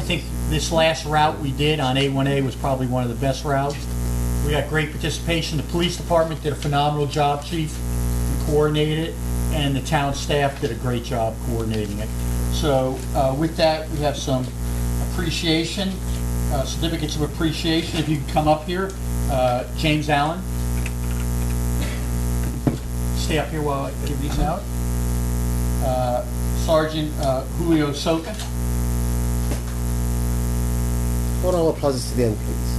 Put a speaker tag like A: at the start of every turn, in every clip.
A: think this last route we did on A1A was probably one of the best routes. We got great participation. The police department did a phenomenal job, chief, and coordinated it, and the town staff did a great job coordinating it. So uh, with that, we have some appreciation, uh, certificates of appreciation. If you could come up here, Uh, James Allen. Stay up here while I give these out. Uh, Sergeant uh, Julio Soca.
B: One round of applause to them, please.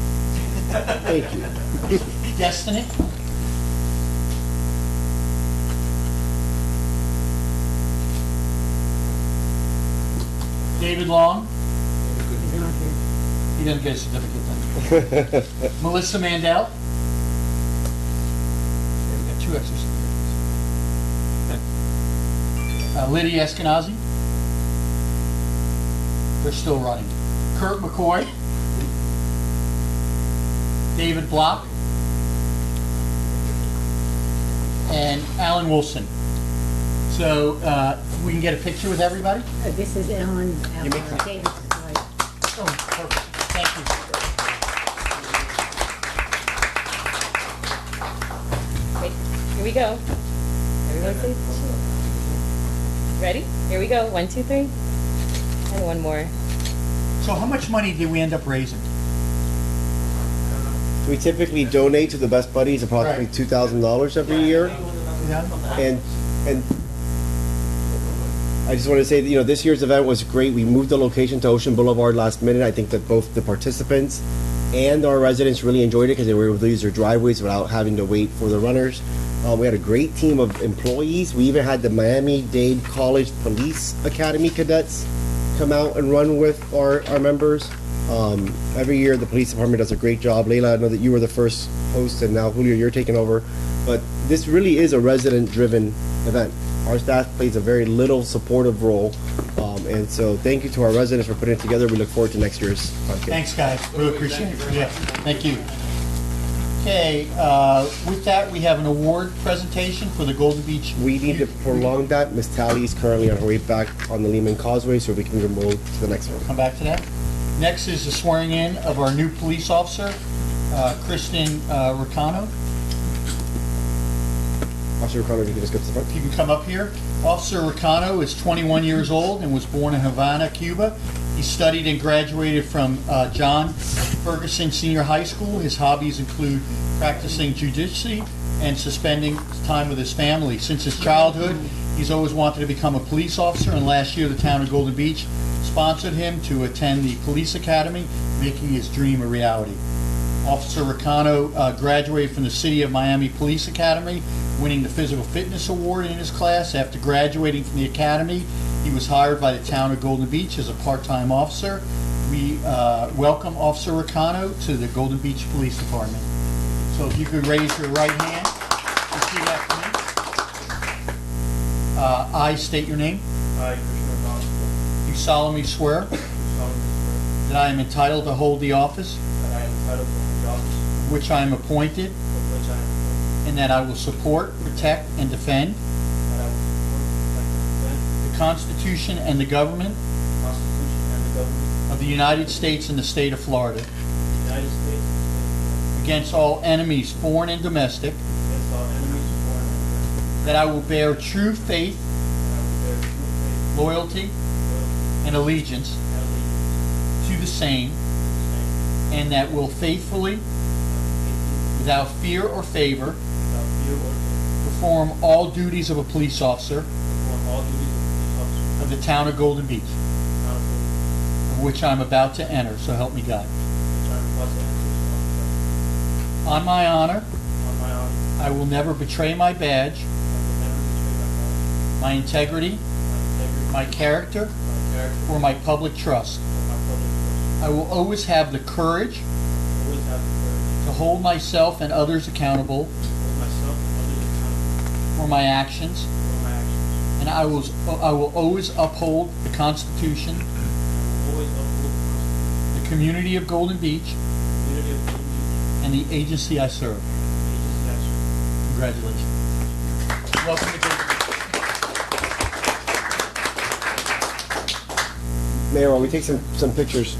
B: Thank you.
A: Destiny. David Long. He doesn't get a certificate then. Melissa Mandel. Okay, we got two extra certificates. Uh, Liddy Eskenazi. They're still running. Kurt McCoy. David Block and Alan Wilson. So uh, we can get a picture with everybody?
C: Uh, This is Ellen uh, Davis. sorry.
A: Oh, perfect. Thank
D: Wait, here we go. Everyone say cheer. Ready? Here we go. One, two, three. And one more.
A: you. So how much money did we end up raising?
B: We typically donate to the Best Buddies approximately
A: Right.
B: two thousand dollars every year,
A: Yeah?
B: and and I just want to say that you know this year's event was great. We moved the location to Ocean Boulevard last minute. I think that both the participants and our residents really enjoyed it because they were able to use their driveways without having to wait for the runners. Uh, we had a great team of employees. We even had the Miami Dade College Police Academy cadets come out and run with our, our members. Um, every year, the police department does a great job. Leila, I know that you were the first host, and now Julio, you're taking over. But this really is a resident-driven event. Our staff plays a very little supportive role, um, and so thank you to our residents for putting it together. We look forward to next year's podcast.
A: Thanks, guys. Really appreciate it. Yeah, thank you. Okay, uh, with that, we have an award presentation for the Golden Beach.
B: We need to prolong that. Miss Tally is currently on her way back on the Lehman Causeway, so we can move to the next one.
A: Come back to that. Next is the swearing in of our new police officer, uh, Kristen uh, Ricano.
B: Officer O'Connor, if you can just go to the front.
A: If you can come up here. Officer Ricano is 21 years old and was born in Havana, Cuba. He studied and graduated from uh, John Ferguson Senior High School. His hobbies include practicing jujitsu and suspending time with his family. Since his childhood, he's always wanted to become a police officer, and last year, the town of Golden Beach sponsored him to attend the police academy, making his dream a reality. Officer Ricano uh, graduated from the City of Miami Police Academy, winning the Physical Fitness Award in his class. After graduating from the academy, he was hired by the town of Golden Beach as a part-time officer. We uh, welcome Officer Ricano to the Golden Beach Police Department. So if you could raise your right hand and repeat after me. Uh, I state your name.
E: I, Commissioner Boswell,
A: You solemnly swear
E: do solemnly swear
A: that I am entitled to hold the office
E: that I am entitled to the office
A: which I am appointed
E: of which I am appointed,
A: and that I will support, protect, and defend
E: that I will support, protect, and defend
A: the Constitution and the government
E: the Constitution and the government
A: of the United States and the state of Florida,
E: of the United States and the state
A: against all enemies, foreign and domestic,
E: of Florida, against all enemies, foreign and domestic,
A: that I will bear true faith,
E: and I will bear true faith,
A: loyalty,
E: loyalty,
A: and allegiance
E: and allegiance
A: to the same,
E: to the same,
A: and that will faithfully,
E: and faithfully,
A: without fear or favor,
E: without fear or favor,
A: perform all duties of a police officer
E: perform all duties of police officer,
A: of the town of Golden Beach,
E: accountable,
A: of which I am about to enter, so help me God.
E: which I am about to enter into office.
A: On my honor,
E: On my honor,
A: I will never betray my badge,
E: I will never betray my honor,
A: my integrity,
E: my integrity,
A: my character,
E: my character,
A: or my public trust.
E: or my public trust.
A: I will always have the courage
E: I Always have the courage
A: to hold myself and others accountable
E: hold myself and others accountable
A: for my actions,
E: for my actions.
A: and I will, I will always uphold the Constitution,
E: I will always uphold the
A: the community of Golden Beach,
E: community of Golden Beach
A: and the agency I serve.
E: and the agency I serve.
A: Congratulations. Welcome to Golden Beach.
B: Mayor, while we take some, some pictures,